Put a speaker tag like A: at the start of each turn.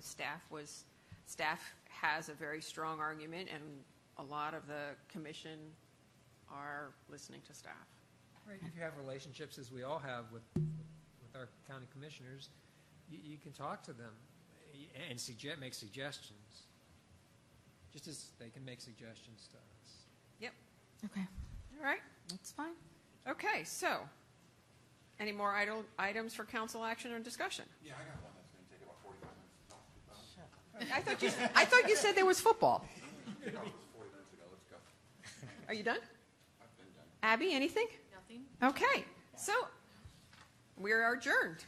A: staff was, staff has a very strong argument, and a lot of the commission are listening to staff.
B: Right, if you have relationships, as we all have with, with our county commissioners, you, you can talk to them eh, and suggest, make suggestions, just as they can make suggestions to us.
A: Yep,
C: Okay,
A: all right,
C: that's fine.
A: okay, so, any more idle, items for council action or discussion?
D: Yeah, I got one that's gonna take about forty-five minutes. No, about-
A: I thought you, I thought you said there was football.
D: no, it was forty minutes ago, let's go.
A: Are you done?
D: I've been done.
A: Abby, anything?
C: Nothing?
A: Okay, so we are adjourned.